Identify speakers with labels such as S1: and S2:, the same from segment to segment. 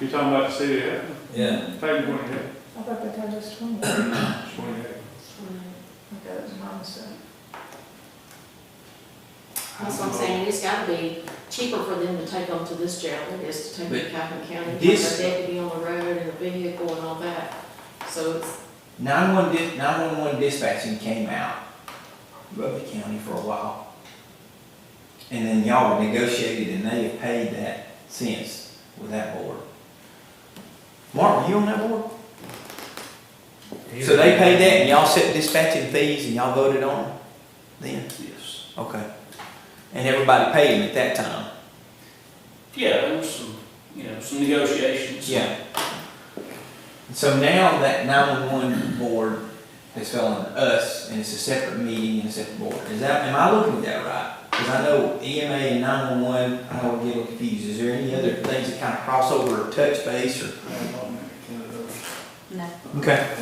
S1: You're talking about the city, yeah?
S2: Yeah,
S1: Page twenty-eight,
S3: I thought that time was twenty. Okay,
S1: twenty-eight.
S3: that was my mistake.
S4: That's what I'm saying, it's gotta be cheaper for them to take on to this jail than it is to take to Calhoun County. with
S2: this-
S4: The deputy on the road and the vehicle and all that, so it's,
S2: nine-one, nine-one-one dispatching came out of the county for a while. And then y'all negotiated and they have paid that since with that board. Mark, were you on that board? So they paid that and y'all set dispatching fees and y'all voted on them then?
S5: Yes.
S2: Okay. And everybody paid them at that time?
S5: Yeah, there was some, you know, some negotiations.
S2: Yeah. So now that nine-one-one board is on us, and it's a separate meeting and a separate board, is that, am I looking at that right? Because I know EMA and nine-one-one, I don't get them confused, is there any other things that kind of cross over or touch base or?
S4: No.
S2: Okay.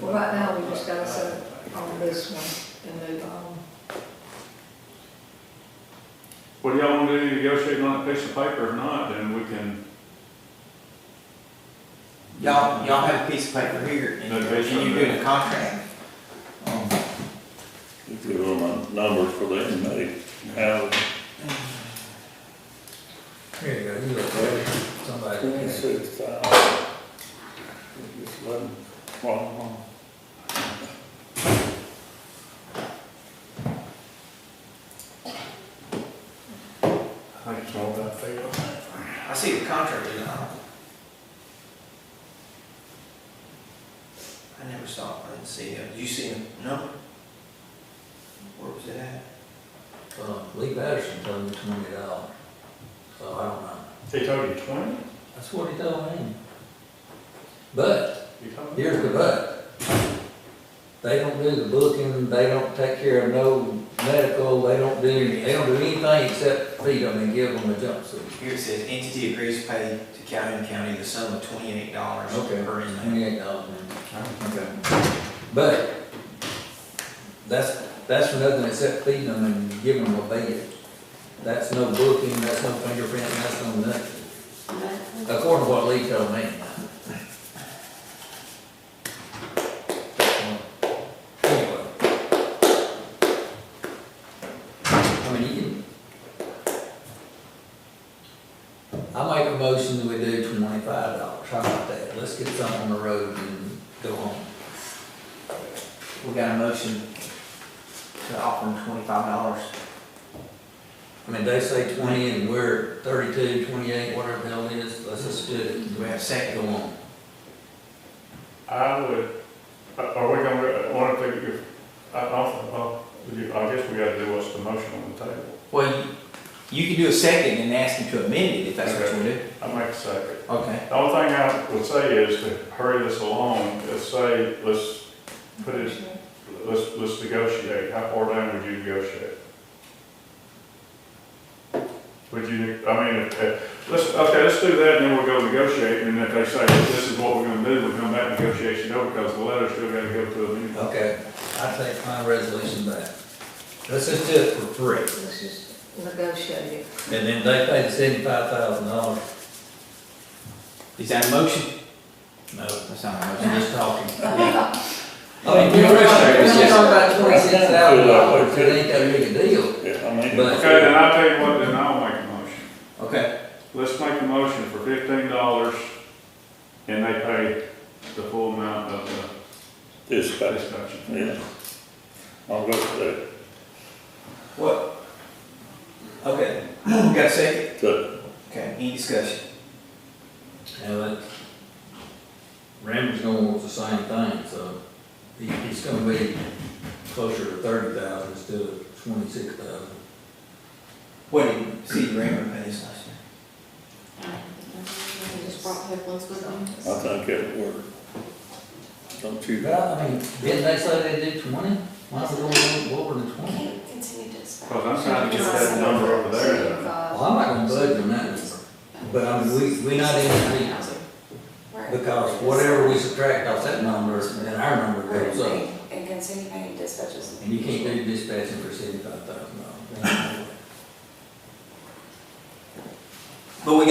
S3: Well, right now, we just gotta set on this one and move on.
S1: What do y'all want to do, negotiate on a piece of paper or not, then we can,
S2: Y'all, y'all have a piece of paper here, and
S1: Okay, sure.
S2: and you're doing a contract. Um,
S6: If you want my numbers for the inmate, how,
S7: Here you go, you look better, somebody.
S6: twenty-six thousand. Just let them walk along.
S1: I think it's all about fair.
S2: I see the contract, you know. I never saw, it. I didn't see it. Did you see him? No. Where was it at?
S7: Uh, Lee Patterson told me twenty dollars, so I don't know.
S1: They told you twenty?
S7: That's what he told me. But,
S1: You told me?
S7: here's the but. They don't do the booking, they don't take care of no medical, they don't do, they don't do anything except feed them and give them a jumpsuit.
S2: Here it says entity agrees to pay to Calhoun County the sum of twenty-eight dollars
S7: Okay.
S2: per inmate.
S7: Twenty-eight dollars.
S2: Okay.
S7: But, that's, that's for nothing except feeding them and giving them a bed. That's no booking, that's no fingerprint, that's no nothing. According to what Lee told me. Anyway. I mean, you can. I make a motion that we do twenty-five dollars, how about that? Let's get something on the road and go home.
S2: We got a motion to offer him twenty-five dollars.
S7: I mean, they say twenty and we're thirty-two, twenty-eight, whatever the hell it is, let's just do it.
S2: Do we have a second?
S7: Go on.
S1: I would, uh, are we gonna, one of the, if, I, I, I guess we gotta do what's the motion on the table.
S2: Well, you- you can do a second and ask him to amend it if that's what you want to do.
S1: I make a second.
S2: Okay.
S1: The only thing I would say is to hurry this along, let's say, let's put it, let's, let's negotiate, how far down would you negotiate? Would you, I mean, if- if- let's, okay, let's do that, and then we'll go negotiate, and if they say, this is what we're gonna do, we'll come back and negotiation over, because the letter's still gotta go to a meeting.
S7: Okay, I take my resolution back. Let's just do it for free,
S3: Let's just negotiate it.
S7: and then they pay the seventy-five thousand dollars.
S2: Is that a motion?
S7: No,
S2: That's not a motion.
S7: I'm just talking.
S2: I mean, you're frustrated, it's
S7: We're
S2: just-
S7: talking about twenty-six thousand dollars, it ain't that big a deal.
S6: Yeah, I mean.
S7: But-
S1: Okay, then I'll tell you what, then I'll make a motion,
S2: Okay.
S1: let's make a motion for fifteen dollars, and they pay the full amount of the
S6: Dispatch,
S1: dispatch.
S6: yeah. I'll go for
S2: What? Okay. We got a second?
S6: that, to
S2: Okay, any discussion?
S7: And that, Randall's gonna want the same thing, so he, he's gonna be closer to thirty thousand instead of twenty-six thousand.
S2: What did City Raymond pay this last year?
S4: They just brought headphones with them.
S6: I think it'll work. Don't you?
S7: But I mean, didn't they say they did twenty? Why is it going over the twenty?
S4: Can't continue to expect.
S1: Because I'm trying to get that number over there.
S7: Well, I'm not gonna budge on that, but I mean, we, we not in agreement.
S8: Right.
S7: Because whatever we subtract off that number, then our number goes up.
S8: And continue paying dispatches.
S7: And you can't do dispatching for seventy-five thousand dollars.
S2: But we